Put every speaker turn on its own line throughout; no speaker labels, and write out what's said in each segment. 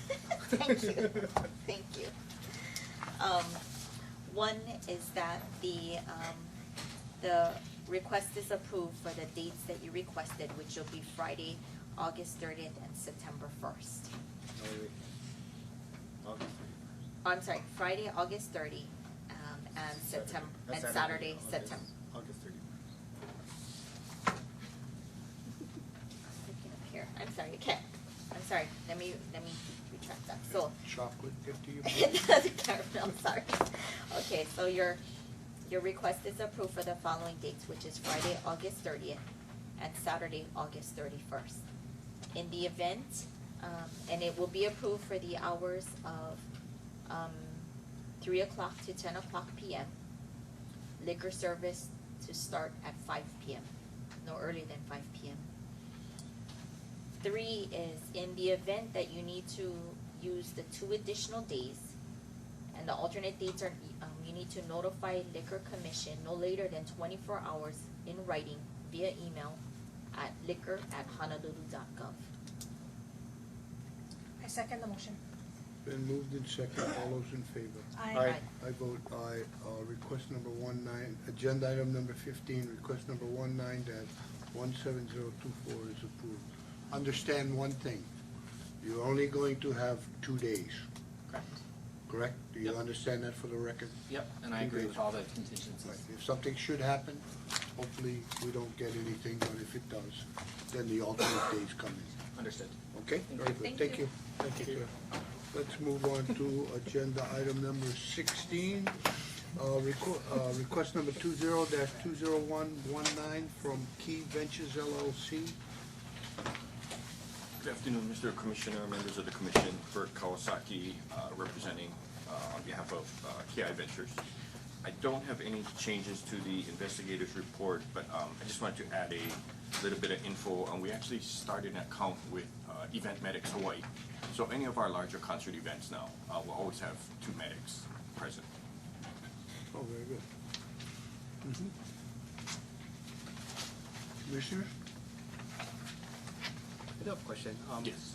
Thank you, thank you. Um, one is that the, um, the request is approved for the dates that you requested, which will be Friday, August thirtieth and September first.
No, wait, wait. August thirty-first.
I'm sorry, Friday, August thirty, um, and September,
Uh,
and Saturday,
August-
September.
August thirty-first.
Looking up here, I'm sorry, okay, I'm sorry, let me, let me retract that, so.
Chocolate gift to you?
Caramel, sorry. Okay, so your, your request is approved for the following dates, which is Friday, August thirtieth, and Saturday, August thirty-first. In the event, um, and it will be approved for the hours of, um, three o'clock to ten o'clock P M. Liquor service to start at five P M, no earlier than five P M. Three is in the event that you need to use the two additional days and the alternate dates are, um, you need to notify liquor commission no later than twenty-four hours in writing via email at liquor at honolulu.gov.
I second the motion.
Been moved in second, all those in favor?
Aye.
I vote aye. Uh, request number one nine, agenda item number fifteen, request number one nine dash one seven zero two four is approved. Understand one thing, you're only going to have two days,
Correct.
correct? Do you
Yep.
understand that for the record?
Yep, and I agree with all the contingencies.
Right, if something should happen, hopefully we don't get anything, but if it does, then the alternate days come in.
Understood.
Okay, very good,
Thank
thank
you.
you. Thank you. Let's move on to agenda item number sixteen. Uh, requ- uh, request number two zero dash two zero one one nine from Key Ventures LLC.
Good afternoon, Mr. Commissioner, members of the commission, Bert Kawasaki, uh, representing uh, on behalf of uh, KI Ventures. I don't have any changes to the investigator's report, but um, I just wanted to add a little bit of info. And we actually started an account with uh, Event Medics Hawaii. So any of our larger concert events now uh, will always have two medics present.
Oh, very good. Mhm. Commissioner?
I do have a question. Um,
Yes.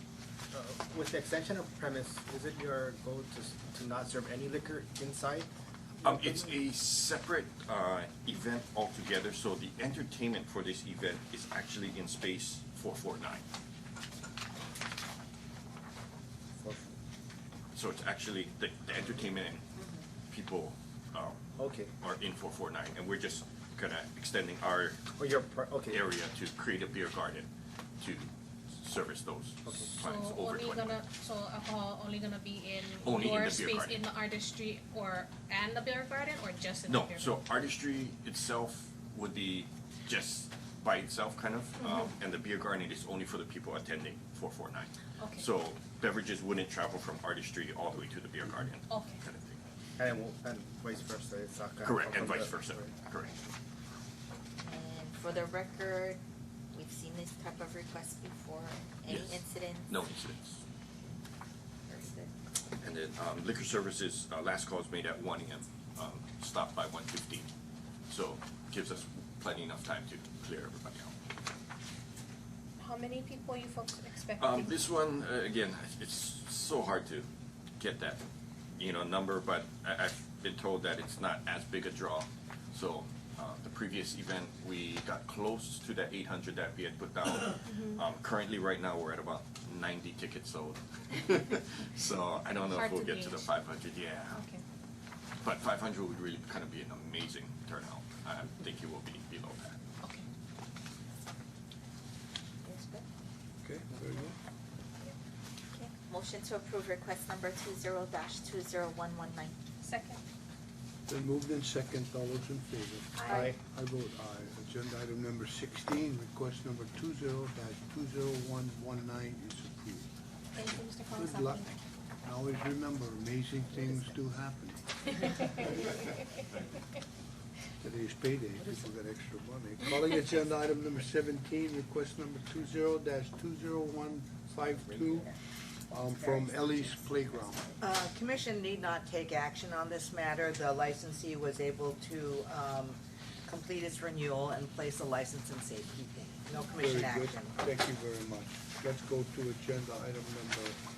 uh, With the extension of premise, is it your goal to, s- to not serve any liquor inside?
Um, it's a separate, uh, event altogether, so the entertainment for this event is actually in space four four nine.
For-
So it's actually, the, the entertainment and people, um,
Okay,
are in four four nine, and we're just kinda extending our
or your, pri- Oh, okay.
area to create a beer garden to service those
Okay.
So
clients over
only
twenty.
gonna, so alcohol only gonna be in
Only in
your
the beer
space
garden.
in the artistry or, and the beer garden, or just in the
No,
beer garden?
so artistry itself would be just by itself kind of, um,
Mm-hmm.
and the beer garden is only for the people attending four four nine.
Okay.
So beverages wouldn't travel from artistry all the way to the beer garden.
Okay.
Kind of thing.
And, it won't- and vice versa, it's not gonna.
Correct,
come
and
from
vice
the-
versa,
right.
correct.
And for the record, we've seen this type of request before, any
Yes.
incidents?
No incidents.
Very good.
And then um, liquor services, uh, last call is made at one AM, um, stop by one fifteen. So gives us plenty enough time to clear everybody out.
How many people you folks
Um,
expecting?
this one, uh, again, it's so hard to get that, you know, number, but I, I've been told that it's not as big a draw. So, uh, the previous event, we got close to that eight hundred that we had put down.
Mm-hmm.
Um, currently, right now, we're at about ninety tickets sold. So I don't know
Hard
if we'll
to
get to the
gauge.
five hundred, yeah.
Okay,
But five hundred would really kind of be an amazing turnout. I think it will be below that.
okay.
Yes, good.
Okay, very good.
Okay. Motion to approve request number two zero dash two zero one one nine.
Second.
Then moved in second, all those in favor?
Aye.
I vote aye. Agenda item number sixteen, request number two zero dash two zero one one nine is approved.
Thank you, Mr. Kawasaki.
Good luck. And always remember, amazing things do happen. Today's payday, people got extra money. Calling agenda item number seventeen, request number two zero dash two zero one five two, um, from Ellie's Playground.
Uh, Commission need not take action on this matter. The licensee was able to um, complete its renewal and place the license in safekeeping. No commission
Very good.
action.
Thank you very much. Let's go to agenda item number